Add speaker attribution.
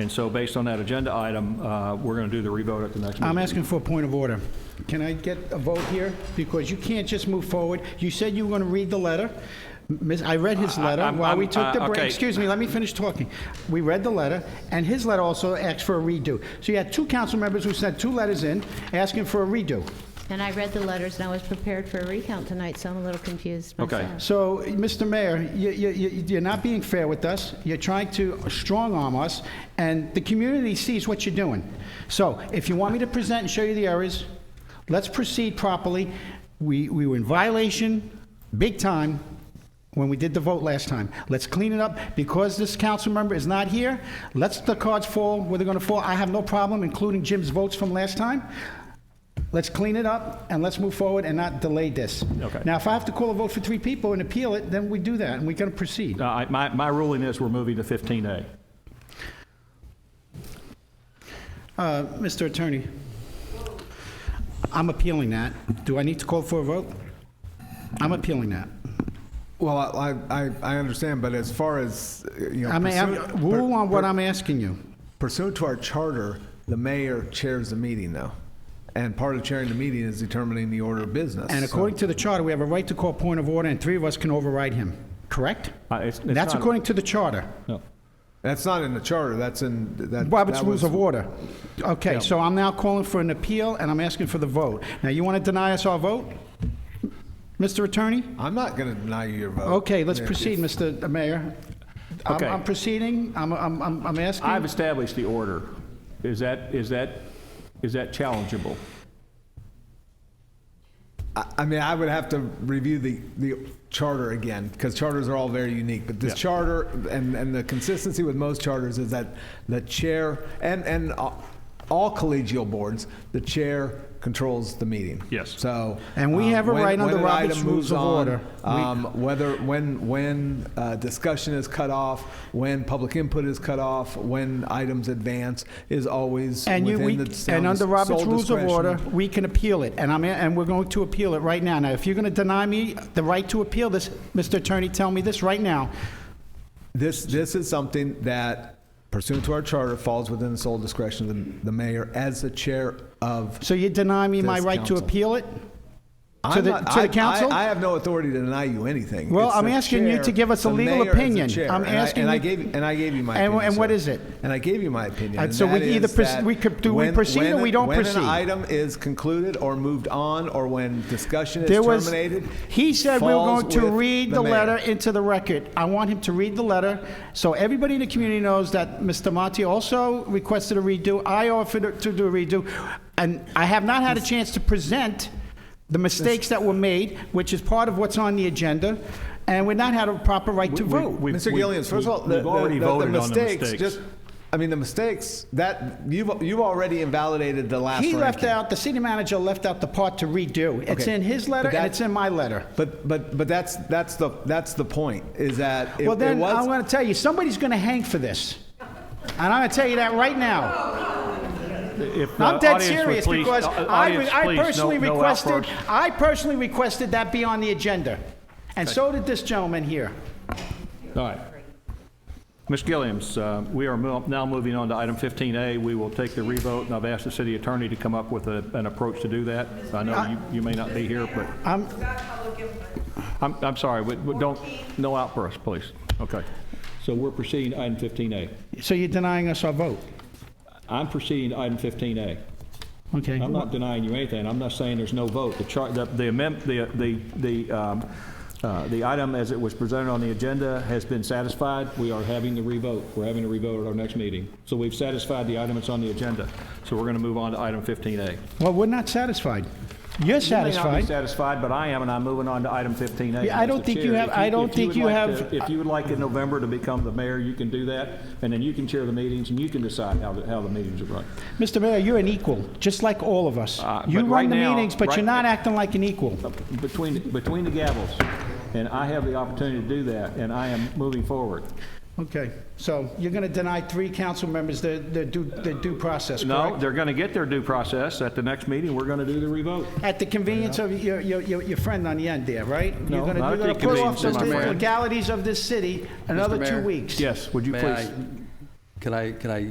Speaker 1: And so based on that agenda item, uh, we're going to do the revote at the next meeting.
Speaker 2: I'm asking for a point of order. Can I get a vote here? Because you can't just move forward. You said you were going to read the letter. Miss- I read his
Speaker 3: I-
Speaker 2: letter
Speaker 3: I'm-
Speaker 2: while we
Speaker 3: I'm-
Speaker 2: took the
Speaker 3: uh,
Speaker 2: break.
Speaker 3: okay.
Speaker 2: Excuse me, let me finish talking. We read the letter, and his letter also asked for a redo. So you had two council members who sent two letters in asking for a redo.
Speaker 4: And I read the letters, and I was prepared for a recount tonight, so I'm a little confused
Speaker 1: Okay.
Speaker 4: myself.
Speaker 2: So, Mr. Mayor, you- you- you- you're not being fair with us. You're trying to strong-arm us, and the community sees what you're doing. So, if you want me to present and show you the errors, let's proceed properly. We we were in violation, big time, when we did the vote last time. Let's clean it up. Because this council member is not here, let's the cards fall where they're going to fall. I have no problem, including Jim's votes from last time. Let's clean it up and let's move forward and not delay this.
Speaker 1: Okay.
Speaker 2: Now, if I have to call a vote for three people and appeal it, then we do that and we can proceed.
Speaker 1: Uh, I- My my ruling is we're moving to 15A.
Speaker 2: Uh, Mr. Attorney, I'm appealing that. Do I need to call for a vote? I'm appealing that.
Speaker 5: Well, I, I, I- I understand, but as far as, uh, you know.
Speaker 2: I mean, I'm-
Speaker 5: pursuant-
Speaker 2: rule
Speaker 5: per-
Speaker 2: on what
Speaker 5: per-
Speaker 2: I'm asking you.
Speaker 5: Pursuant to our charter, the mayor chairs the meeting though. And part of chairing the meeting is determining the order of business.
Speaker 2: And
Speaker 5: so-
Speaker 2: according to the charter, we have a right to call point of order and three of us can override him, correct?
Speaker 1: Uh, it's- it's
Speaker 2: That's
Speaker 1: not-
Speaker 2: according to the charter,
Speaker 1: No.
Speaker 5: That's not in the charter, that's in, that.
Speaker 2: Robert's
Speaker 5: that
Speaker 2: Rules
Speaker 5: was-
Speaker 2: of Order. Okay, so I'm now calling for an appeal and I'm asking for the vote. Now, you want to deny us our vote? Mr. Attorney?
Speaker 5: I'm not going to deny you your vote.
Speaker 2: Okay, let's
Speaker 5: Yeah.
Speaker 2: proceed, Mr. Mayor. I'm-
Speaker 1: Okay.
Speaker 2: I'm proceeding, I'm, I'm, I'm I'm
Speaker 1: I've
Speaker 2: asking,
Speaker 1: established the order. Is that, is that, is that challengeable?
Speaker 5: I, I mean, I would have to review the, the charter again, because charters are all very unique, but this
Speaker 1: Yeah.
Speaker 5: charter, and, and the consistency with most charters is that the chair, and, and all- all collegial boards, the chair controls the meeting.
Speaker 1: Yes.
Speaker 5: So.
Speaker 2: And we
Speaker 5: um,
Speaker 2: have a
Speaker 5: when-
Speaker 2: right under
Speaker 5: when an
Speaker 2: Robert's
Speaker 5: item
Speaker 2: Rules
Speaker 5: moves
Speaker 2: of
Speaker 5: on,
Speaker 2: Order. We-
Speaker 5: Um, whether, when, when uh, discussion is cut off, when public input is cut off, when items advance, is always
Speaker 2: and you, we,
Speaker 5: within the sound
Speaker 2: and under
Speaker 5: dis-
Speaker 2: Robert's
Speaker 5: sole
Speaker 2: Rules of
Speaker 5: discretion
Speaker 2: Order, we can appeal it, and I'm, and we're going to appeal it right now. Now, if you're going to deny me the right to appeal this, Mr. Attorney, tell me this right now.
Speaker 5: This, this is something that pursuant to our charter falls within the sole discretion of the, the mayor as the chair of.
Speaker 2: So you deny me my
Speaker 5: This
Speaker 2: right to
Speaker 5: council.
Speaker 2: appeal it?
Speaker 5: I'm
Speaker 2: the-
Speaker 5: not-
Speaker 2: to the
Speaker 5: I- I-
Speaker 2: council?
Speaker 5: I have no authority to deny you anything.
Speaker 2: Well,
Speaker 5: It's
Speaker 2: I'm
Speaker 5: the
Speaker 2: asking you
Speaker 5: chair-
Speaker 2: to give us a
Speaker 5: the
Speaker 2: legal
Speaker 5: mayor as the
Speaker 2: opinion.
Speaker 5: chair.
Speaker 2: I'm
Speaker 5: And I-
Speaker 2: asking
Speaker 5: And I
Speaker 2: you-
Speaker 5: gave, and I gave you my
Speaker 2: And-
Speaker 5: opinion.
Speaker 2: and what
Speaker 5: sir.
Speaker 2: is it?
Speaker 5: And I gave you my opinion.
Speaker 2: Uh,
Speaker 5: and
Speaker 2: so we
Speaker 5: that
Speaker 2: either
Speaker 5: is
Speaker 2: proce-
Speaker 5: that
Speaker 2: we could- do we
Speaker 5: when-
Speaker 2: proceed or
Speaker 5: when-
Speaker 2: we don't
Speaker 5: When
Speaker 2: proceed?
Speaker 5: an item is concluded or moved on, or when discussion
Speaker 2: There was,
Speaker 5: is terminated.
Speaker 2: he said we were
Speaker 5: falls
Speaker 2: going to
Speaker 5: with
Speaker 2: read the
Speaker 5: mayor.
Speaker 2: letter into the record. I want him to read the letter, so everybody in the community knows that Mr. Monti also requested a redo, I offered to do a redo, and I have not had a chance to present the mistakes that were made, which is part of what's on the agenda, and we've not had a proper right to
Speaker 1: We- we-
Speaker 2: vote.
Speaker 1: we-
Speaker 5: Mr. Gillians, first of all, the,
Speaker 1: we've already
Speaker 5: the- the- the
Speaker 1: voted on the
Speaker 5: mistakes,
Speaker 1: mistakes.
Speaker 5: just, I mean, the mistakes, that, you've, you've already invalidated the last
Speaker 2: He left
Speaker 5: ranking.
Speaker 2: out, the city manager left out the part to redo. It's
Speaker 5: Okay.
Speaker 2: in his letter
Speaker 5: But
Speaker 2: and
Speaker 5: that-
Speaker 2: it's in my letter.
Speaker 5: But, but, but that's, that's the, that's the point, is that it it
Speaker 2: Well, then, I'm
Speaker 5: was,
Speaker 2: going to tell you, somebody's going to hang for this. And I'm going to tell you that right now.
Speaker 1: If the
Speaker 2: I'm dead
Speaker 1: Uh, audience would
Speaker 2: serious
Speaker 1: please-
Speaker 2: because
Speaker 1: au-
Speaker 2: I,
Speaker 1: audience,
Speaker 2: re- I
Speaker 1: please, no-
Speaker 2: personally
Speaker 1: no
Speaker 2: requested,
Speaker 1: outbursts.
Speaker 2: I personally requested that be on the agenda. And so did this gentleman here.
Speaker 1: All right. Ms. Gilliams, uh, we are mo- now moving on to item 15A. We will take the revote, and I've asked the city attorney to come up with a- an approach to do that. I know you- you may not be here, but...
Speaker 2: I'm-
Speaker 1: I'm I'm sorry, but but don't, no outburst, please. Okay. So we're proceeding to item 15A.
Speaker 2: So you're denying us our vote?
Speaker 1: I'm proceeding to item 15A.
Speaker 2: Okay.
Speaker 1: I'm not denying you anything. I'm not saying there's no vote. The chart, the, the amend, the, the, the, um, uh, the item as it was presented on the agenda has been satisfied. We are having the revote. We're having a revote at our next meeting. So we've satisfied the item that's on the agenda. So we're going to move on to item 15A.
Speaker 2: Well, we're not satisfied. You're
Speaker 1: You may not be
Speaker 2: satisfied.
Speaker 1: satisfied, but I am, and I'm moving on to item 15A.
Speaker 2: Yeah, I don't
Speaker 1: Mr.
Speaker 2: think you
Speaker 1: Chair.
Speaker 2: have-
Speaker 1: If
Speaker 2: I don't
Speaker 1: if
Speaker 2: think
Speaker 1: would
Speaker 2: you
Speaker 1: like
Speaker 2: have-
Speaker 1: to- If you would like in November to become the mayor, you can do that, and then you can chair the meetings, and you can decide how, the- how the meetings are run.
Speaker 2: Mr. Mayor, you're an equal, just like all of us.
Speaker 1: Uh,
Speaker 2: You
Speaker 1: but
Speaker 2: run
Speaker 1: right
Speaker 2: the
Speaker 1: now-
Speaker 2: meetings, but
Speaker 1: right-
Speaker 2: you're not acting like an equal.
Speaker 1: between, between the gavels, and I have the opportunity to do that, and I am moving forward.
Speaker 2: Okay, so you're going to deny three council members their their due their due process,
Speaker 1: No,
Speaker 2: correct?
Speaker 1: they're going to get their due process. At the next meeting, we're going to do the revote.
Speaker 2: At the convenience of your your your your friend on the end there, right?
Speaker 1: No,
Speaker 2: You're gonna-
Speaker 1: not
Speaker 2: you're
Speaker 1: at the
Speaker 2: gonna put off
Speaker 1: convenience of
Speaker 2: the
Speaker 1: my friend.
Speaker 2: Legalities of this city another two
Speaker 6: Mayor?
Speaker 2: weeks.
Speaker 1: Yes, would you
Speaker 6: May
Speaker 1: please?
Speaker 6: I- Can I, can I